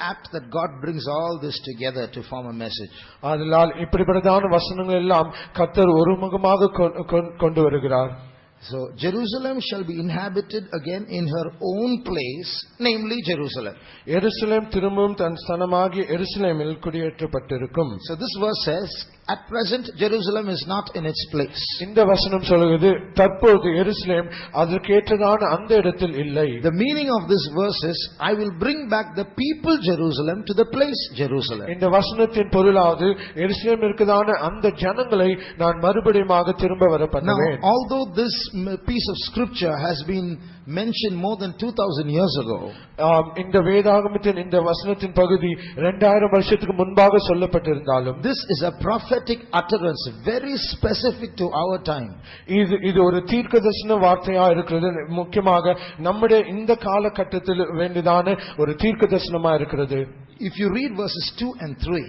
apt that God brings all this together to form a message. ஆதலால் இப்படிப்பட்டதான வசனங்கள் எல்லாம் கர்த்தர் ஒருமுகமாக கொ- கொ- கொண்டு வருகிறார் So Jerusalem shall be inhabited again in her own place, namely Jerusalem. எருசலேம் திரும்பவும் தன் ஸ்தனமாகிய எருசலேமில் குடியேற்றப்பட்டிருக்கும் So this verse says, at present Jerusalem is not in its place. இந்த வசனம் சொல்கிறது தற்பொழுது எருசலேம் அதற்கேற்றதான அந்த இடத்தில் இல்லை The meaning of this verse is, I will bring back the people Jerusalem to the place Jerusalem. இந்த வசனத்தின் பொருளாவது எருசலேம் இருக்கதான அந்த ஜனங்களை நான் மறுபடியுமாக திரும்ப வர Now, பண்ணுவேன் although this m- piece of scripture has been mentioned more than 2000 years ago, ஆம், இந்த வேதாகமத்தின் இந்த வசனத்தின் பகுதி இரண்டாயிரம் வருஷத்துக்கு முன்பாக சொல்லப்பட்டிருந்தாலும் this is a prophetic utterance, very specific to our time. இது இது ஒரு தீர்க்கதரிசன வார்த்தையா இருக்கிறது முக்கியமாக நம்முடைய இந்த காலகட்டத்தில் வேண்டியதான ஒரு தீர்க்கதரிசனமா இருக்கிறது If you read verses 2 and 3,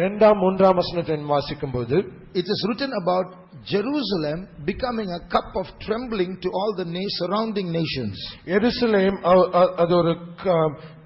இரண்டாம் மூன்றாம் வசனத்தை வாசிக்கும் போது It is written about Jerusalem becoming a cup of trembling to all the na- surrounding nations. எருசலேம் அ- அ- அது ஒரு க-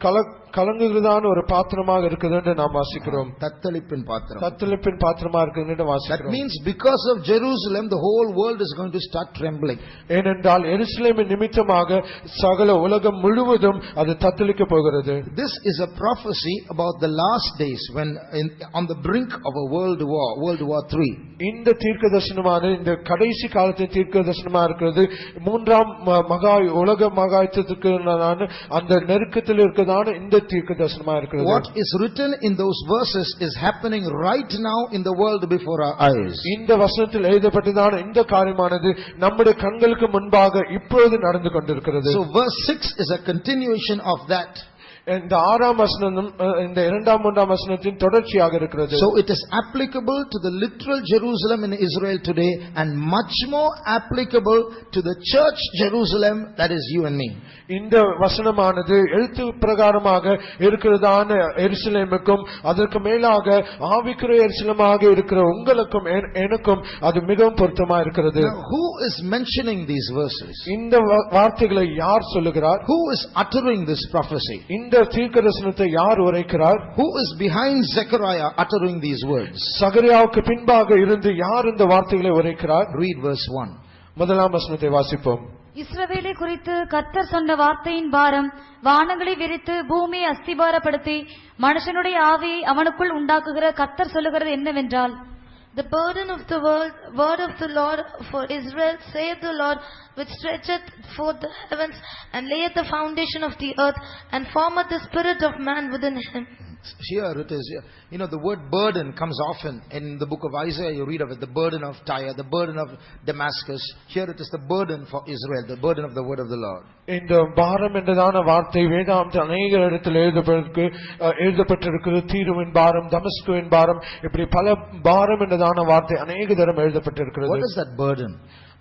கல- கலங்குகிறதான ஒரு பாத்திரமாக இருக்குது என்று நாம் வாசிக்கிறோம் தத்தளிப்பின் பாத்திரம். தத்தளிப்பின் பாத்திரமா இருக்குது என்று That வாசிக்கிறோம் means because of Jerusalem, the whole world is going to start trembling. ஏனென்றால் எருசலேமின் நிமித்தமாக சகல உலகம் முழுவதும் அது தத்தளிக்க போகிறது This is a prophecy about the last days when in, on the brink of a world war, World War III. இந்த தீர்க்க தரிசனமான இந்த கடைசி காலத்தின் தீர்க்க தரிசனமா இருக்கிறது மூன்றாம் ம- மகாய் உலக மகாயத்துக்கு அந்த நெருக்கத்தில் இருக்கிறதான இந்த தீர்க்க தரிசனமா இருக்கிறது What is written in those verses is happening right now in the world before our eyes. இந்த வசனத்தில் எழுதப்பட்டதான இந்த காரியமானது நம்முடைய கண்களுக்கு முன்பாக இப்பொழுது நடந்து கொண்டிருக்கிறது So verse 6 is a continuation of that. இந்த ஆறாம் வசனம் இந்த இரண்டாம் மூன்றாம் வசனத்தின் தொடர்ச்சியாக இருக்கிறது So it is applicable to the literal Jerusalem in Israel today and much more applicable to the church Jerusalem that is you and me. இந்த வசனமானது எழுத்து பிரகாரமாக இருக்கிறதான எருசலேமுக்கும் அதற்கு மேலாக ஆவிக்குரிய எருசலமாக இருக்கிற உங்களுக்கும் என்- எனக்கும் அது மிகவும் பொருத்தமா இருக்கிறது Now, who is mentioning these verses? இந்த வா- வார்த்தைகளை யார் சொல்லுகிறார் Who is uttering this prophecy? இந்த தீர்க்கதரிசனத்தை யார் உரைக்கிறார் Who is behind Zechariah uttering these words? சகரியாவுக்கு பின்பாக இருந்து யார் இந்த வார்த்தைகளை உரைக்கிறார் Read verse 1. முதலாம் வசனத்தை வாசிப்போம் இஸ்ரவேலை குறித்து கர்த்தர் சொன்ன வார்த்தையின் பாரம் வானங்களை விரித்து பூமியை அஸ்திபாரப்படுத்தி மனுஷனுடைய ஆவியை அவனுக்குள் உண்டாக்குகிற கர்த்தர் சொல்லுகிறது என்னவென்றால் The burden of the world, word of the Lord for Israel, saith the Lord, which stretcheth forth the heavens, and layeth the foundation of the earth, and formeth the spirit of man within him. Here it is. here. You know, the word burden comes often in the book of Isaiah. You read of it the burden of Tyre, the burden of Damascus. Here it is the burden for Israel, the burden of the word of the Lord. இந்த பாரம் என்றதான வார்த்தை வேதாந்த அநேக இடத்தில் எழுதப்பட்டிருக்கு அஹ், எழுதப்பட்டிருக்கிறது தீருவின் பாரம் தமஸ்குவின் பாரம் இப்படி பல பாரம் என்றதான வார்த்தை அநேக தரம் What எழுதப்பட்டிருக்கிறது is that burden?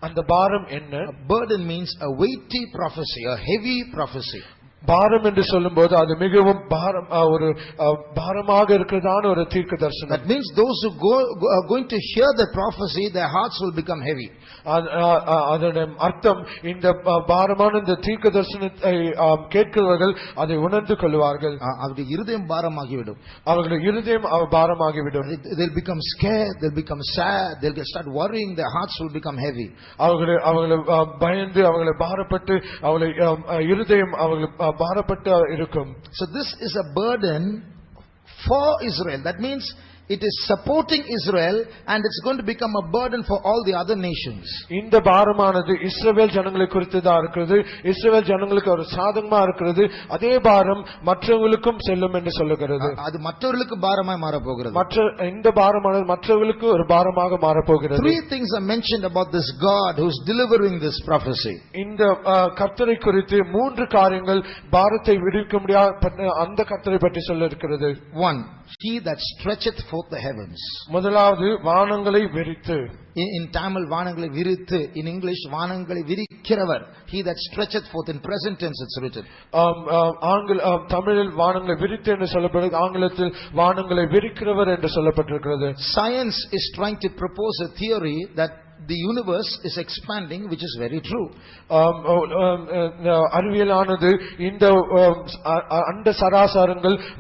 அந்த பாரம் என்ன A burden means a weighty prophecy, a heavy prophecy. பாரம் என்று சொல்லும்போது அது மிகவும் பாரம் அஹ், ஒரு அஹ், பாரமாக இருக்கிறதான ஒரு தீர்க்க தரிசனம் That means those who go, go- are going to hear the prophecy, their hearts will become heavy. அது- அஹ், அஹ், அதனுடைய அர்த்தம் இந்த அஹ், பாரமான இந்த தீர்க்க தரிசனத்தை அஹ், கேட்கிறவர்கள் அதை உணர்ந்து கொள்வார்கள் Uh, அவருடைய இருதயம் பாரமாகிவிடும். அவர்கள் இருதயம் அஹ், பாரமாகிவிடும் They- They'll become scared, they'll become sad, they'll get- start worrying, their hearts will become heavy. அவர்களை அவர்களை அ, பயந்து அவர்களை பாரப்பட்டு அவளை அம், அ, இருதயம் அவர்கள் அ, பாரப்பட்டு இருக்கும் So this is a burden for Israel. That means it is supporting Israel and it's going to become a burden for all the other nations. இந்த பாரமானது இஸ்ரவேல் ஜனங்களை குறித்துதான் இருக்கிறது இஸ்ரவேல் ஜனங்களுக்கு ஒரு சாதகமா இருக்கிறது அதே பாரம் மற்றவங்களுக்கும் செல்லும் என்று சொல்லுகிறது அ- அது மற்றவர்களுக்கு பாரமாய் மாறப்போகிறது. மற்ற இந்த பாரமானது மற்றவர்களுக்கு ஒரு பாரமாக மாறப்போகிறது Three things are mentioned about this God who's delivering this prophecy. இந்த அ, கர்த்தரை குறித்து மூன்று காரியங்கள் பாரத்தை விடுவிக்க முடியாத அந்த கர்த்தரை பற்றி சொல்ல இருக்கிறது One, he that stretcheth forth the heavens. முதலாவது வானங்களை வெறித்து In, in Tamil, வானங்களை விரித்து, in English, வானங்களை விரிக்கிறவர். He that stretcheth forth, in present tense it's written. ஆம், ஆம், ஆங்கில ஆம், தமிழில் வானங்களை விரித்து என்று சொல்லப்படுகிறது ஆங்கிலத்தில் வானங்களை விரிக்கிறவர் என்று சொல்லப்பட்டிருக்கிறது Science is trying to propose a theory that the universe is expanding, which is very true. ஆம், ஆம், ஆம், அறிவியலானது இந்த ஆம், அ- அ- அண்ட சராசரங்கள்